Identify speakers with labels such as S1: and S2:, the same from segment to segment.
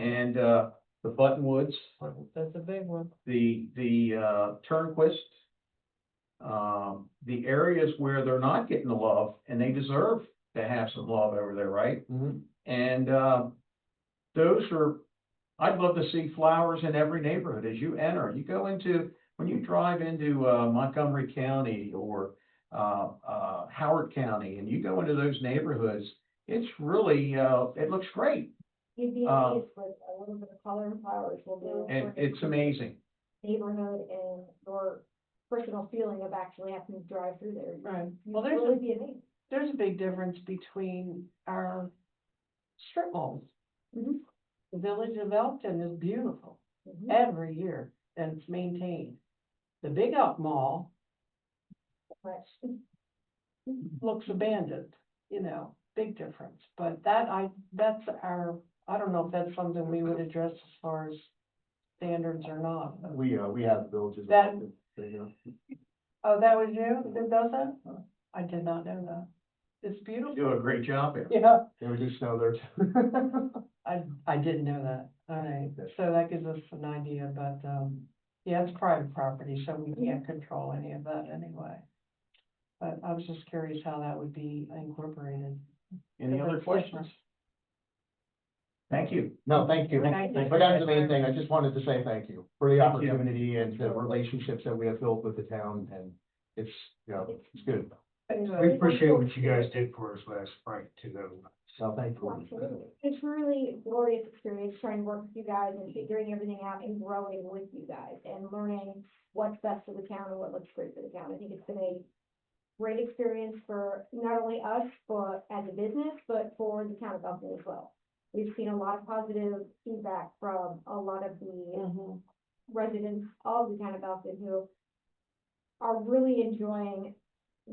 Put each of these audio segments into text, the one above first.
S1: uh, the Buttonwoods,
S2: That's a big one.
S1: the, the, uh, Turnquist. Um, the areas where they're not getting the love and they deserve to have some love over there, right?
S2: Mm-hmm.
S1: And, uh, those are, I'd love to see flowers in every neighborhood as you enter. You go into, when you drive into, uh, Montgomery County or, uh, uh, Howard County and you go into those neighborhoods, it's really, uh, it looks great
S3: You'd be
S1: Um,
S3: amazed with a little bit of color and flowers will do.
S1: and it's amazing.
S3: Neighborhood and your personal feeling of actually having to drive through there.
S2: Right.
S3: You'd
S2: Well, there's
S3: really
S2: a,
S3: be amazed.
S2: there's a big difference between our strip malls. Mm-hmm.
S3: Mhm.
S2: The village of Elton is beautiful
S3: Mhm.
S2: every year and it's maintained. The Big Elk Mall
S3: Much.
S2: looks abandoned, you know, big difference. But that I, that's our, I don't know if that's something we would address as far as standards or not.
S4: We, uh, we have villages.
S2: That-
S4: There you go.
S2: Oh, that was you that does that? I did not know that. It's beautiful.
S1: You do a great job there.
S2: Yeah.
S4: Yeah, we do snow there too.
S2: I, I didn't know that, alright,
S4: Okay.
S2: so that gives us an idea, but, um, yeah, it's private property, so we can't control any of that anyway. But I was just curious how that would be incorporated.
S1: Any other questions? Thank you.
S4: No, thank you.
S2: Thank you.
S4: But that's the main thing. I just wanted to say thank you for the
S1: Thank you.
S4: opportunity and the relationships that we have built with the town and it's, you know, it's good.
S2: Anyway,
S3: appreciate what you guys
S4: did for us last spring too. That was. So thank you.
S3: Absolutely. It's really glorious experience trying to work with you guys and figuring everything out and growing with you guys and learning what's best for the town and what looks great for the town. I think it's been a great experience for not only us, but as a business, but for the town of Elton as well. We've seen a lot of positive feedback from a lot of the
S2: mhm,
S3: residents of the town of Elton who are really enjoying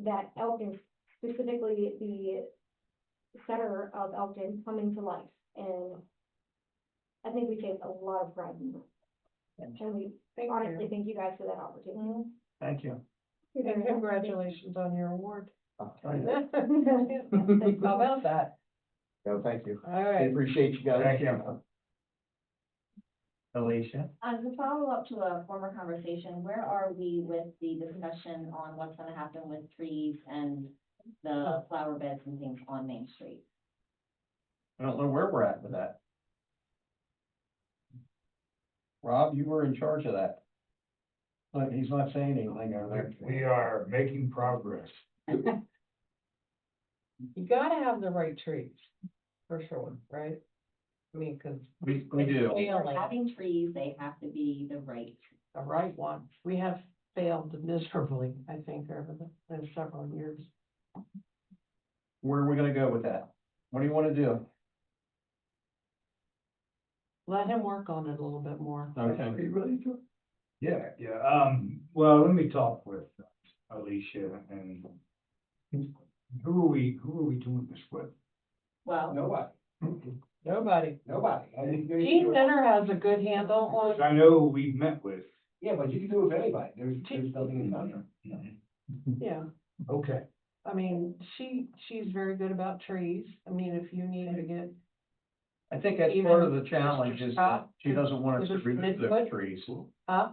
S3: that Elton, specifically the center of Elton coming to life. And I think we take a lot of pride in that. And we
S2: thank you.
S3: honestly thank you guys for that opportunity.
S2: Mhm,
S1: Thank you.
S3: You're very
S2: Mm-hmm. And
S3: welcome.
S2: congratulations on your award.
S3: Thank you.
S2: How about that?
S4: No, thank you. I
S2: Alright,
S4: appreciate you guys.
S1: Thank you. Alicia?
S5: Um, to follow up to a former conversation, where are we with the discussion on what's gonna happen with trees and the flower beds and things on Main Street?
S1: I don't know where we're at with that. Rob, you were in charge of that. But he's not saying anything over there.
S6: We are making progress.
S2: you gotta have the right trees, for sure, right? I mean, cause
S1: We, we do.
S5: If
S2: failing,
S5: we're Having trees, they have to be the right.
S2: the right one, we have failed miserably, I think, over the last several years.
S1: Where are we gonna go with that? What do you wanna do?
S2: Let him work on it a little bit more.
S1: Okay.
S6: Yeah, yeah, um, well, let me talk with Alicia and who are we, who are we doing this with?
S5: Well,
S6: Nobody,
S2: Nobody.
S6: nobody.
S2: Gene Benner has a good handle on,
S6: I know we met with.
S4: Yeah, but you can do it with anybody. There's,
S2: there's
S4: nothing
S2: yeah,
S6: Mm-hmm. Okay,
S2: I mean, she, she's very good about trees. I mean, if you need to get,
S1: I think that's part of the challenge is that she doesn't want us to
S2: Even Mr.
S1: remove those
S2: Midwood?
S1: trees.
S2: uh,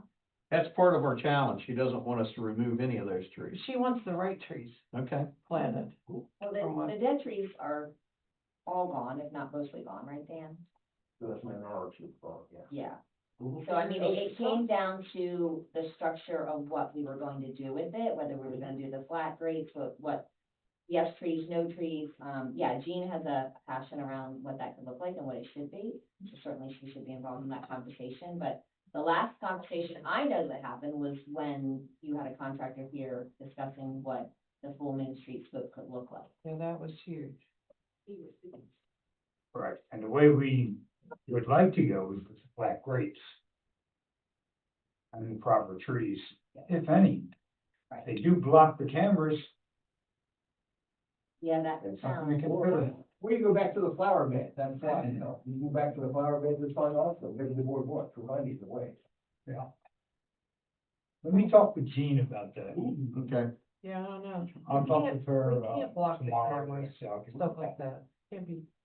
S1: That's part of our challenge. She doesn't want us to remove any of those trees.
S2: she wants the right trees
S1: Okay,
S2: planted.
S5: well,
S2: From what?
S5: the, the dead trees are all gone, if not mostly gone, right, Dan? Yeah, so I mean, it, it came down to the structure of what we were going to do with it, whether we were gonna do the flat grates, what, what. Yes, trees, no trees, um, yeah, Jean has a passion around what that could look like and what it should be, so certainly she should be involved in that conversation, but. The last conversation I know that happened was when you had a contractor here discussing what the full Main Street scope could look like.
S2: Yeah, that was huge.
S6: right, and the way we would like to go is with black grapes. And the proper trees, if any.
S5: Right.
S6: They do block the cameras,
S5: Yeah, that
S6: That's something we
S5: sounds.
S6: can
S4: Oh,
S6: pivot.
S4: We can go back to the flower bed. That's fine. You know, you go back to the flower bed, that's fine also. Maybe the board wants to run either way.
S6: let me talk with Jean about that.
S1: okay.
S2: Yeah, I don't know,
S6: I'll talk with her
S2: we
S6: uh,
S2: can't block the
S6: tomorrow.
S2: cameras,
S6: so I'll get-
S2: stuff like that. Can't be